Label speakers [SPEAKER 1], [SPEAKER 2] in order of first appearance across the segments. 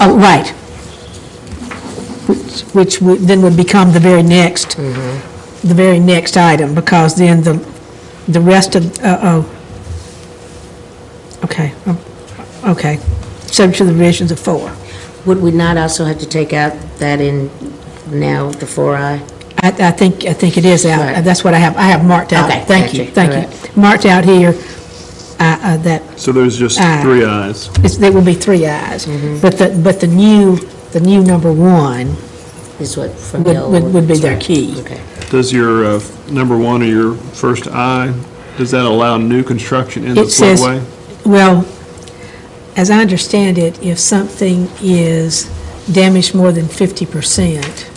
[SPEAKER 1] Oh, right. Which- Which would, then would become the very next,
[SPEAKER 2] Mm-hmm.
[SPEAKER 1] the very next item, because then the, the rest of, uh-oh. Okay, um, okay. Subject to the revisions of four.
[SPEAKER 2] Would we not also have to take out that in now, the 4I?
[SPEAKER 1] I, I think, I think it is out.
[SPEAKER 2] Right.
[SPEAKER 1] That's what I have, I have marked out.
[SPEAKER 2] Okay,
[SPEAKER 1] Thank you,
[SPEAKER 2] gotcha.
[SPEAKER 1] thank you. Marked out here, uh, uh, that
[SPEAKER 3] So there's just
[SPEAKER 1] Aye.
[SPEAKER 3] three ayes.
[SPEAKER 1] It's, there will be three ayes,
[SPEAKER 2] Mm-hmm.
[SPEAKER 1] but the, but the new, the new number one
[SPEAKER 2] Is what from the
[SPEAKER 1] would,
[SPEAKER 2] old?
[SPEAKER 1] would- would be their
[SPEAKER 2] Right.
[SPEAKER 1] key.
[SPEAKER 2] Okay.
[SPEAKER 3] Does your uh, number one or your first I, does that allow new construction in the
[SPEAKER 1] It says,
[SPEAKER 3] floodway?
[SPEAKER 1] well, as I understand it, if something is damaged more than fifty percent,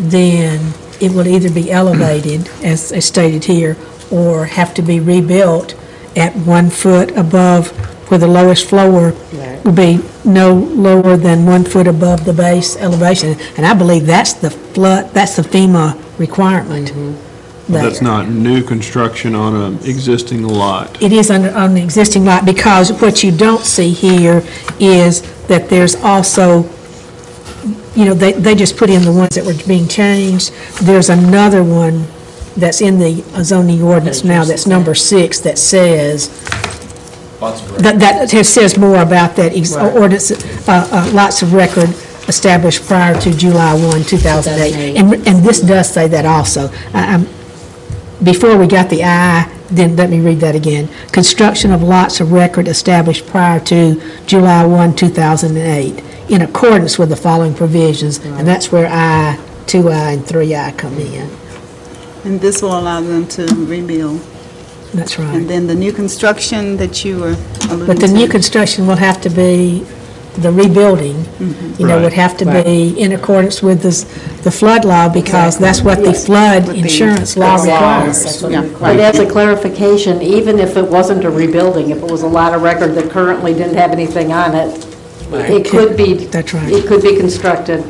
[SPEAKER 1] then it will either be elevated, as is stated here, or have to be rebuilt at one foot above where the lowest floor
[SPEAKER 2] Right.
[SPEAKER 1] will be no lower than one foot above the base elevation. And I believe that's the flood, that's the FEMA requirement.
[SPEAKER 3] Well, That's
[SPEAKER 1] there.
[SPEAKER 3] not new construction on an existing lot.
[SPEAKER 1] It is under, on the existing lot, because what you don't see here is that there's also, you know, they, they just put in the ones that were being changed. There's another one that's in the zoning ordinance now, that's number six, that says, that, that says more about that ex-
[SPEAKER 2] Right.
[SPEAKER 1] ordinance, uh, uh, lots of record established prior to July 1, 2008.
[SPEAKER 2] 2008.
[SPEAKER 1] And, and this does say that also. I- I'm- Before we got the I, then let me read that again. Construction of lots of record established prior to July 1, 2008, in accordance with the following provisions. And that's where I, 2I, and 3I come in.
[SPEAKER 4] And this will allow them to rebuild.
[SPEAKER 1] That's right.
[SPEAKER 4] And then the new construction that you were alluding to.
[SPEAKER 1] But the new construction will have to be, the rebuilding, you know, would
[SPEAKER 3] Right.
[SPEAKER 1] have to
[SPEAKER 4] Right.
[SPEAKER 1] be in accordance with this, the flood law, because that's what the flood insurance law requires.
[SPEAKER 2] That's what it
[SPEAKER 4] Yeah.
[SPEAKER 5] But
[SPEAKER 2] requires.
[SPEAKER 5] as a clarification, even if it wasn't a rebuilding, if it was a lot of record that currently didn't have anything on it, it could be,
[SPEAKER 1] That's right.
[SPEAKER 5] it could be constructed.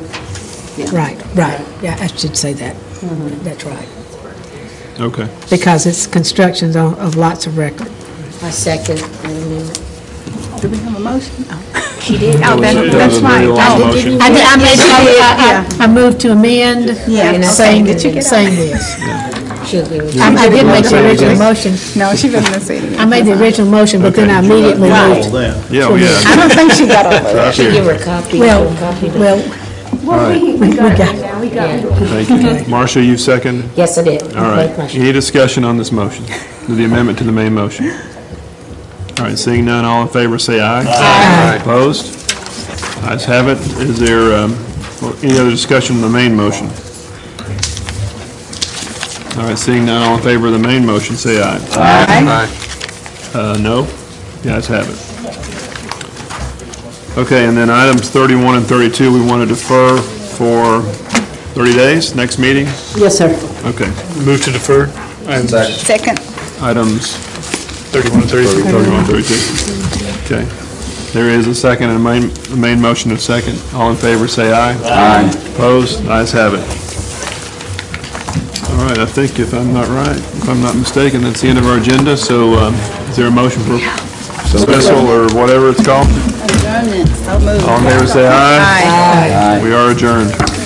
[SPEAKER 1] Right, right, yeah, I should say that, that's right,
[SPEAKER 3] Okay.
[SPEAKER 1] because it's constructions on- of lots of record.
[SPEAKER 2] My second. wait a minute.
[SPEAKER 4] Do we have a motion? Oh,
[SPEAKER 2] She did.
[SPEAKER 3] That was- that was a very long motion.
[SPEAKER 1] I did- I made-
[SPEAKER 4] Yeah.
[SPEAKER 1] I- I I moved to amend,
[SPEAKER 4] Yeah,
[SPEAKER 1] and
[SPEAKER 4] okay.
[SPEAKER 1] saying,
[SPEAKER 4] Did you get
[SPEAKER 1] saying this.
[SPEAKER 2] She'll give it.
[SPEAKER 1] I I did make the original motion,
[SPEAKER 4] No, she wasn't gonna say it.
[SPEAKER 1] I made the original motion, but then I immediately moved.
[SPEAKER 3] Yeah, oh, yeah.
[SPEAKER 4] I don't think she got all that.
[SPEAKER 3] Right
[SPEAKER 2] She'll give
[SPEAKER 3] here.
[SPEAKER 2] her a copy.
[SPEAKER 1] Well,
[SPEAKER 2] a copy to-
[SPEAKER 1] well,
[SPEAKER 3] Thank you. Marcia, you second?
[SPEAKER 2] Yes, I did.
[SPEAKER 3] All right.
[SPEAKER 2] Okay, question.
[SPEAKER 3] Any discussion on this motion? The amendment to the main motion? All right, seeing none, all in favor, say aye. Aye. Opposed? Ayes have it. Is there um, any other discussion on the main motion? All right, seeing none, all in favor of the main motion, say aye. Aye. No? The ayes have it. Okay, and then items 31 and 32, we want to defer for 30 days, next meeting?
[SPEAKER 5] Yes, sir.
[SPEAKER 3] Okay.
[SPEAKER 6] Move to defer, items
[SPEAKER 4] Second,
[SPEAKER 3] Items
[SPEAKER 6] 31 and 32.
[SPEAKER 3] 31, 32. Okay. There is a second and a main, a main motion and a second. All in favor, say aye. Aye. Opposed? Ayes have it. All right, I think if I'm not right, if I'm not mistaken, that's the end of our agenda, so um, is there a motion for special or whatever it's called?
[SPEAKER 4] adjournment, so moved.
[SPEAKER 3] All in favor, say aye.
[SPEAKER 4] Aye.
[SPEAKER 3] We are adjourned.